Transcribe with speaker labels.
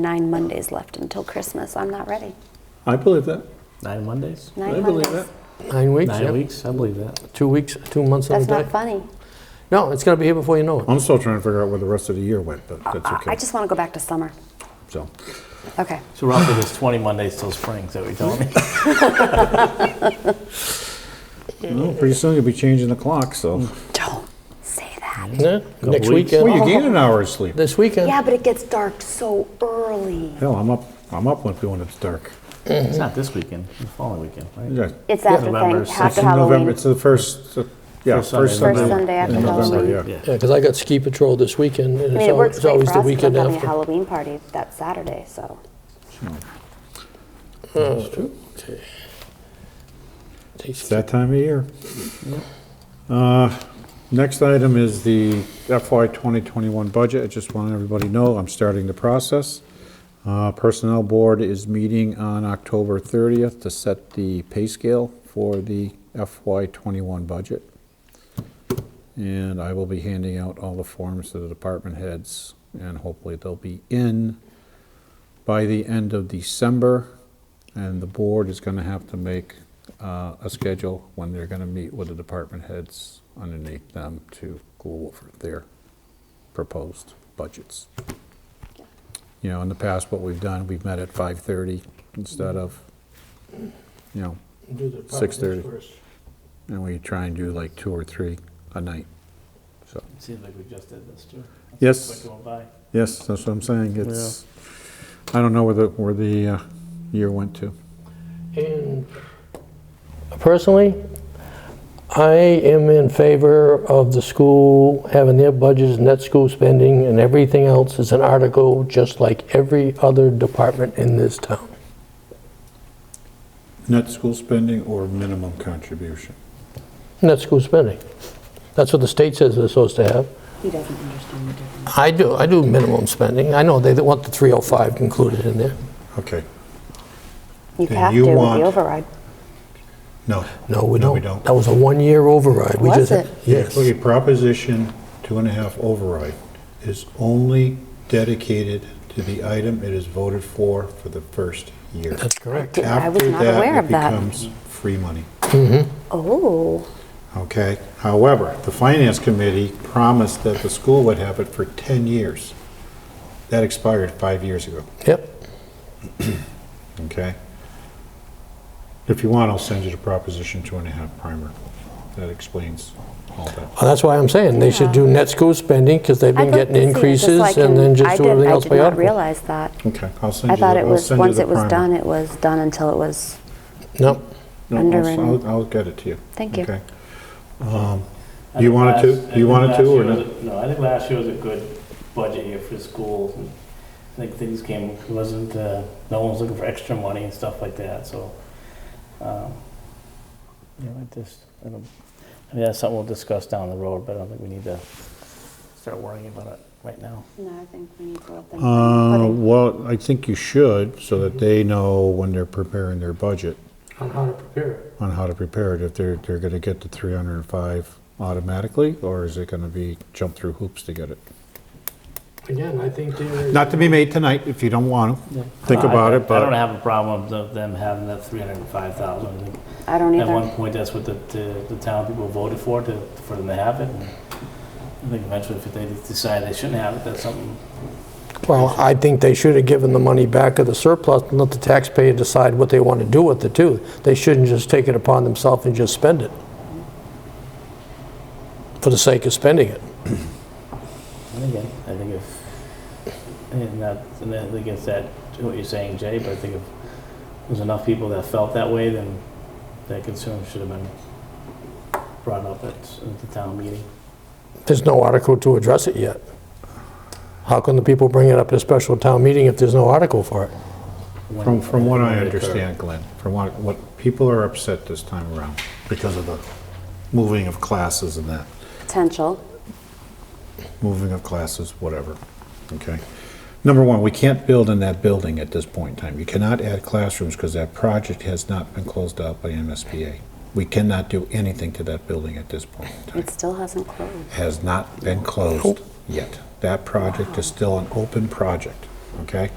Speaker 1: Nine Mondays left until Christmas. I'm not ready.
Speaker 2: I believe that.
Speaker 3: Nine Mondays?
Speaker 1: Nine
Speaker 2: I
Speaker 1: Mondays.
Speaker 2: believe that.
Speaker 4: Nine weeks,
Speaker 3: Nine
Speaker 4: yeah.
Speaker 3: weeks? I believe that.
Speaker 4: Two weeks, two months on a
Speaker 1: That's
Speaker 4: day.
Speaker 1: not funny.
Speaker 4: No, it's going to be here before you know it.
Speaker 2: I'm still trying to figure out where the rest of the year went, but that's
Speaker 1: I-
Speaker 2: okay.
Speaker 1: I just want to go back to summer.
Speaker 2: so
Speaker 1: Okay.
Speaker 3: So roughly there's 20 Mondays till spring, is that what you're telling me?
Speaker 2: Well, pretty soon you'll be changing the clock. So
Speaker 3: Mm.
Speaker 1: Don't say that.
Speaker 4: Yeah, next
Speaker 3: Mm-hmm. weeks.
Speaker 4: weekend.
Speaker 2: well, you gain an hour of sleep.
Speaker 4: This weekend.
Speaker 1: Yeah, but it gets dark so early.
Speaker 2: Hell, I'm up. I'm up with when it's dark.
Speaker 3: It's not this weekend, the following weekend, right?
Speaker 2: Yeah.
Speaker 1: It's after
Speaker 3: November
Speaker 1: thing, after
Speaker 2: It's in November.
Speaker 1: Halloween.
Speaker 2: It's the first. uh, yeah,
Speaker 3: First
Speaker 2: first,
Speaker 3: Sunday.
Speaker 1: First
Speaker 2: Sunday,
Speaker 1: Sunday after
Speaker 2: in November.
Speaker 1: Halloween.
Speaker 2: Yeah.
Speaker 4: Yeah, because I got ski patrol this weekend, and
Speaker 1: I
Speaker 4: it's,
Speaker 1: mean, it
Speaker 4: al-
Speaker 1: works
Speaker 4: it's
Speaker 1: great
Speaker 4: always
Speaker 1: for
Speaker 4: the
Speaker 1: us. We're
Speaker 4: weekend
Speaker 1: having a
Speaker 4: after.
Speaker 1: Halloween party that Saturday, so
Speaker 2: It's that time of year. Uh, next item is the FY 2021 budget. I just want everybody to know I'm starting the process. Uh, Personnel Board is meeting on October 30th to set the pay scale for the FY '21 budget. And I will be handing out all the forms to the department heads, and hopefully they'll be in by the end of December. And the board is going to have to make uh, a schedule when they're going to meet with the department heads underneath them to go over their proposed budgets. You know, in the past, what we've done, we've met at 5:30 instead of, you know, 6:30. And we try and do like two or three a night. So,
Speaker 3: Seems like we just did this too.
Speaker 2: Yes. Quick yes, that's what I'm saying. It's, I don't know where the, where the uh, year went to.
Speaker 4: And personally, I am in favor of the school having their budgets, net school spending, and everything else is an article, just like every other department in this town.
Speaker 2: Net school spending or minimum contribution?
Speaker 4: Net school spending. That's what the state says they're supposed to have.
Speaker 1: he doesn't understand the difference.
Speaker 4: I do, I do minimum spending. I know they they want the 305 included in there.
Speaker 2: Okay,
Speaker 1: You
Speaker 2: Then
Speaker 1: have
Speaker 2: you
Speaker 1: to with
Speaker 2: want-
Speaker 1: the override.
Speaker 2: no.
Speaker 4: No, we don't.
Speaker 2: No, we don't.
Speaker 4: That was a one-year override. We
Speaker 1: Was
Speaker 4: just-
Speaker 1: it?
Speaker 4: Yes.
Speaker 2: Okay, Proposition two and a half override is only dedicated to the item it is voted for for the first year.
Speaker 4: That's correct.
Speaker 1: I was
Speaker 2: After
Speaker 1: not aware of that.
Speaker 2: It becomes free money,
Speaker 1: Oh,
Speaker 2: okay? However, the Finance Committee promised that the school would have it for 10 years. That expired five years ago,
Speaker 4: Yep.
Speaker 2: okay? If you want, I'll send you the Proposition two and a half primer. That explains all that.
Speaker 4: Well, that's why I'm saying they should do net school spending because they've
Speaker 1: I
Speaker 4: been
Speaker 1: thought
Speaker 4: getting
Speaker 1: this year, just
Speaker 4: increases
Speaker 1: like
Speaker 4: and
Speaker 1: in-
Speaker 4: then
Speaker 1: I
Speaker 4: just do
Speaker 1: did-
Speaker 4: everything else by
Speaker 1: I did not
Speaker 4: article.
Speaker 1: realize that.
Speaker 2: Okay, I'll send
Speaker 1: I
Speaker 2: you the,
Speaker 1: thought it
Speaker 2: I'll
Speaker 1: was,
Speaker 2: send you
Speaker 1: once
Speaker 2: the
Speaker 1: it was
Speaker 2: primer.
Speaker 1: done, it was done until it was,
Speaker 4: No,
Speaker 2: No,
Speaker 1: Underwritten.
Speaker 2: I'll- I'll, I'll get it to you.
Speaker 1: Thank you.
Speaker 2: Okay.
Speaker 4: Uh-huh.
Speaker 2: Um, You wanted to, you wanted to or no?
Speaker 3: No, I think last year was a good budget year for schools. and I think things came, it wasn't, uh, no one was looking for extra money and stuff like that, so. um, You know, I just, I don't, I mean, that's something we'll discuss down the road, but I don't think we need to start worrying about it right now.
Speaker 1: no, I think we need to let them.
Speaker 2: Uh, well, I think you should, so that they know when they're preparing their budget
Speaker 4: On how to prepare it.
Speaker 2: on how to prepare it, if they're, they're gonna get to three hundred and five automatically, or is it gonna be jump through hoops to get it?
Speaker 4: Again, I think they're.
Speaker 2: Not to be made tonight, if you don't want to, think
Speaker 3: No, I-
Speaker 2: about it,
Speaker 3: I don't
Speaker 2: but
Speaker 3: have a problem of them having that three hundred and five thousand. I think
Speaker 1: I don't
Speaker 3: At one
Speaker 1: either.
Speaker 3: point, that's what the, the, the town people voted for, to, for them to have it. and I think eventually, if they decide they shouldn't have it, that's something.
Speaker 4: Well, I think they should have given the money back of the surplus and let the taxpayer decide what they want to do with it too. They shouldn't just take it upon themselves and just spend it for the sake of spending it.
Speaker 3: And again, I think if, and that, and I think it's that, what you're saying, Jay, but I think if there's enough people that felt that way, then that concern should have been brought up at, at the town meeting.
Speaker 4: There's no article to address it yet. How can the people bring it up at a special town meeting if there's no article for it?
Speaker 3: when-
Speaker 2: from, from what
Speaker 3: when
Speaker 2: I
Speaker 3: it occurred.
Speaker 2: understand, Glenn, from what, what, people are upset this time around because of the moving of classes and that.
Speaker 1: Potential.
Speaker 2: moving of classes, whatever, okay? Number one, we can't build in that building at this point in time. You cannot add classrooms because that project has not been closed out by MSBA. We cannot do anything to that building at this point in time.
Speaker 1: It still hasn't closed.
Speaker 2: Has not been closed yet. That project is still an open project, okay?